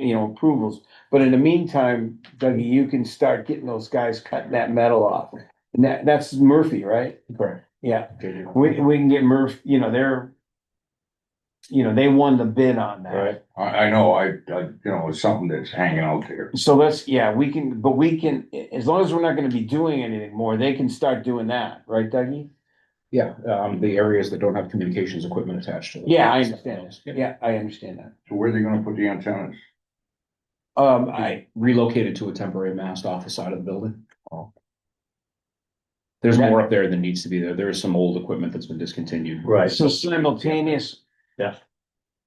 you know, approvals. But in the meantime, Dougie, you can start getting those guys cutting that metal off. And that, that's Murphy, right? Correct. Yeah, we, we can get Murph, you know, they're. You know, they won the bid on that. Right. I, I know, I, I, you know, it's something that's hanging out there. So let's, yeah, we can, but we can, as long as we're not gonna be doing anything more, they can start doing that, right, Dougie? Yeah, um, the areas that don't have communications equipment attached to them. Yeah, I understand. Yeah, I understand that. So where are they gonna put the antennas? Um, I, I relocated to a temporary mast off the side of the building. Oh. There's That- more up there than needs to be there. There is some old equipment that's been discontinued. Right. so simultaneous. Yeah.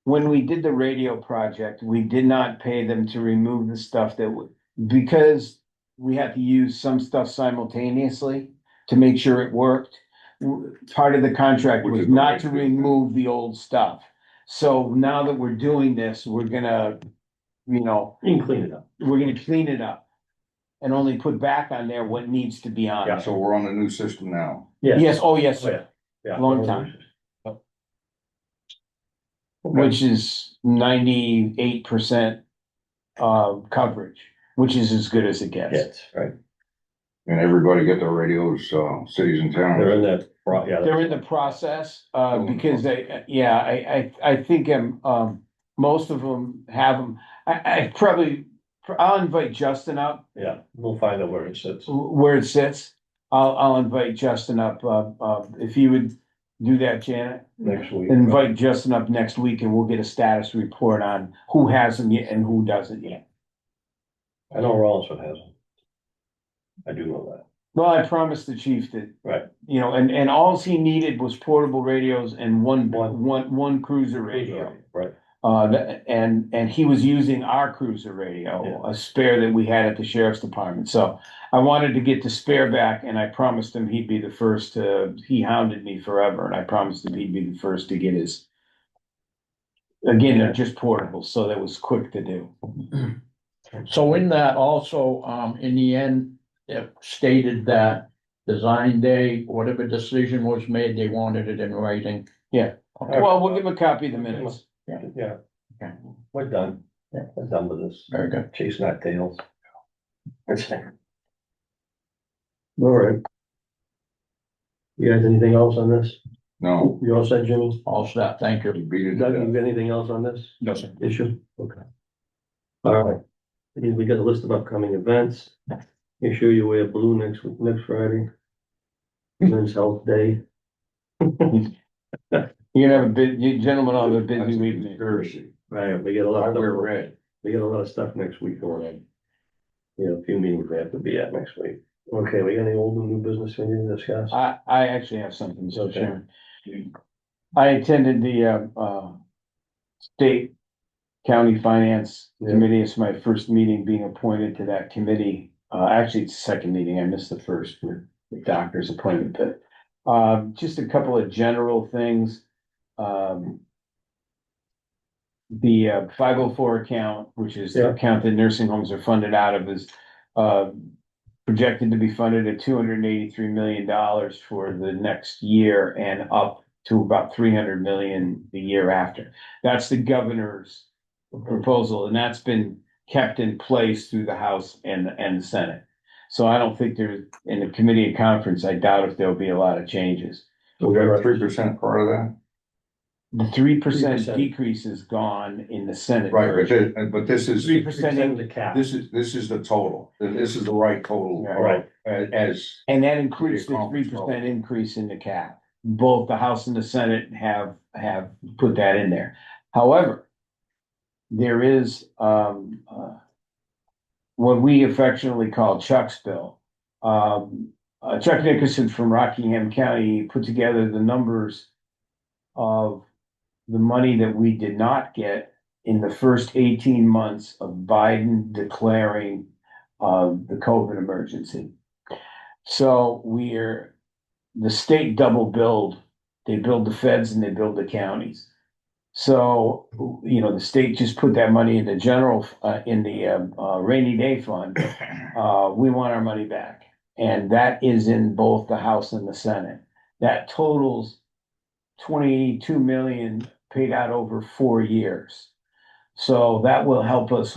When we did the radio project, we did not pay them to remove the stuff that would, because we had to use some stuff simultaneously to make sure it worked. w- Part of the contract Which was is the not way to to do it. remove the old stuff. So now that we're doing this, we're gonna, you know, And clean it up. we're gonna clean it up. And only put back on there what needs to be on. Yeah. it. So we're on the new system now. Yes, oh, yes, sir. yeah. Long time. which is ninety-eight percent um coverage, which is as good as it gets. Yes, right. And everybody get their radios, uh, cities and They're towns. in that, pro- yeah. They're in the process, uh, because they, yeah, I, I, I think um, um, most of them have them. I, I probably, I'll invite Justin up Yeah, we'll find out where it sits. where it sits. I'll, I'll invite Justin up, uh, uh, if you would do that, Janet. Next week. Invite Justin up next week and we'll get a status report on who has them yet and who doesn't yet. I know Rollinsford has them. I do know that. Well, I promised the chief that. Right. You know, and, and all he needed was portable radios and one, One. one, one cruiser radio. Right, Uh, that- and, and he was using our cruiser radio, Yeah. a spare that we had at the sheriff's department. So I wanted to get the spare back and I promised him he'd be the first to, he hounded me forever and I promised him he'd be the first to get his. Again, they're just portable, so that was quick to do. So in that also, um, in the end, it stated that design day, whatever decision was made, they wanted it in writing. Yeah. Okay. Well, we'll give him a copy of the minutes. yeah. Okay. We're done. Yeah. We're done with this. Very good. Chasing our tails. All right. You guys, anything else on this? No, You all said, Jimmy? All set. Thank you. you beat it to Doug, death. you got anything else on this No, sir. issue? Okay. All right, we got a list of upcoming events. Make sure you wear blue next, week- next Friday. Men's Health Day. You're gonna have a bit, you gentlemen will have a busy That's a evening. Conspiracy. Right, we get a lot I of, wear red. we get a lot of stuff next week going on. You know, a few meetings we have to be at next week. Okay, we got any old and new business we need to discuss? I, I actually have something, so Okay. Chairman. I attended the, uh, uh, state county finance Yeah. committee. It's my first meeting being appointed to that committee. Uh, actually, it's the second meeting. I missed the first with the doctor's appointment, but, um, just a couple of general things. Um, the, uh, five oh four account, which is the Yeah. account that nursing homes are funded out of is, uh, projected to be funded at two hundred and eighty-three million dollars for the next year and up to about three hundred million the year after. That's the governor's Uh, proposal, and that's been kept in place through the House and, and the Senate. So I don't think there, in the committee and conference, I doubt if there'll be a lot of changes. So We got three we're- percent part of that? The three percent 3%. decrease is gone in the Senate. Right, but this, but this Three is, percent, Send the cap. this is, this is the total. This is the right total. Yeah. Right. As, as and that includes the three Conference vote. percent increase in the cap. Both the House and the Senate have, have put that in there. However, there is, um, uh, what we affectionately call Chuck's bill. Um, uh, Chuck Nickerson from Rockingham County put together the numbers of the money that we did not get in the first eighteen months of Biden declaring, uh, the COVID emergency. So we're, the state double billed, they build the feds and they build the counties. So, you know, the state just put that money in the general, uh, in the, um, uh, rainy day fund. Uh, we want our money back. And that is in both the House and the Senate. That totals twenty-two million paid out over four years. So that will help us